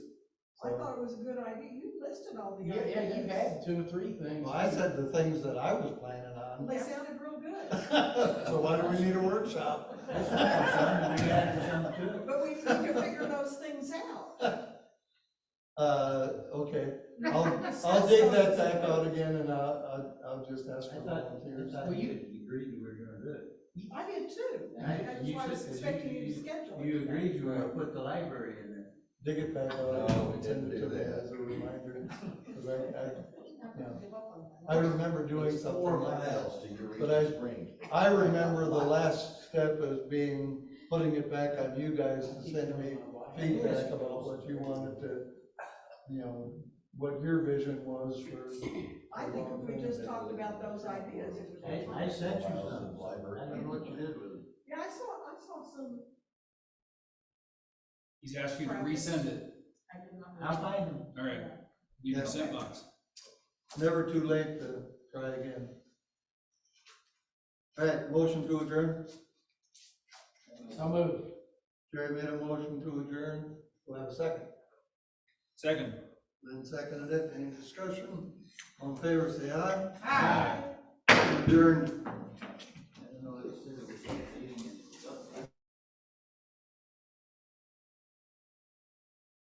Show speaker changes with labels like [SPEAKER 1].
[SPEAKER 1] it was a good idea, you listed all the
[SPEAKER 2] Yeah,
[SPEAKER 1] ideas.
[SPEAKER 2] yeah, you had two or three things.
[SPEAKER 3] Well, I said the things that I was planning on.
[SPEAKER 1] They sounded real good,
[SPEAKER 3] So why do we need a workshop?
[SPEAKER 1] but we need to figure those things out.
[SPEAKER 3] Uh, okay, I'll, I'll
[SPEAKER 1] That's
[SPEAKER 3] dig
[SPEAKER 1] so-
[SPEAKER 3] that back out again and I'll, I'll, I'll just ask
[SPEAKER 2] I
[SPEAKER 3] for
[SPEAKER 2] thought,
[SPEAKER 3] volunteers.
[SPEAKER 2] well, you,
[SPEAKER 4] You agreed you were gonna do it.
[SPEAKER 1] I did too, that's
[SPEAKER 4] You
[SPEAKER 1] why I was
[SPEAKER 4] said-
[SPEAKER 1] expecting you to schedule it.
[SPEAKER 4] You agreed you were gonna put the library in there.
[SPEAKER 3] Dig it back out.
[SPEAKER 4] No, we
[SPEAKER 3] and send
[SPEAKER 4] didn't
[SPEAKER 3] it
[SPEAKER 4] do
[SPEAKER 3] to me
[SPEAKER 4] that.
[SPEAKER 3] As a reminder, 'cause I, Yeah.
[SPEAKER 1] Give up on
[SPEAKER 3] I,
[SPEAKER 1] that.
[SPEAKER 3] I remember doing
[SPEAKER 5] It's
[SPEAKER 3] something
[SPEAKER 5] four
[SPEAKER 3] like that.
[SPEAKER 5] miles to your
[SPEAKER 3] But I-
[SPEAKER 5] reach spring.
[SPEAKER 3] I remember the last step as being putting it back on you guys to send me feedback about what you wanted to, you know, what your vision was for.
[SPEAKER 1] I think if we just talked about those ideas, it would.
[SPEAKER 2] I, I sent you
[SPEAKER 5] Miles
[SPEAKER 2] some,
[SPEAKER 5] of library.
[SPEAKER 2] I don't know what you did with it.
[SPEAKER 1] Yeah, I saw, I saw some,
[SPEAKER 6] He's asked you to resend it.
[SPEAKER 1] I did not.
[SPEAKER 2] I'll find them.
[SPEAKER 6] All right, leave your sent box.
[SPEAKER 3] Never too late to try again. All right, motion to adjourn.
[SPEAKER 2] I'll move.
[SPEAKER 3] Jerry made a motion to adjourn. We'll have a second.
[SPEAKER 6] Second.
[SPEAKER 3] Lynn seconded it. Any discussion? On favor, say aye.
[SPEAKER 1] Hi.
[SPEAKER 3] Adjourned.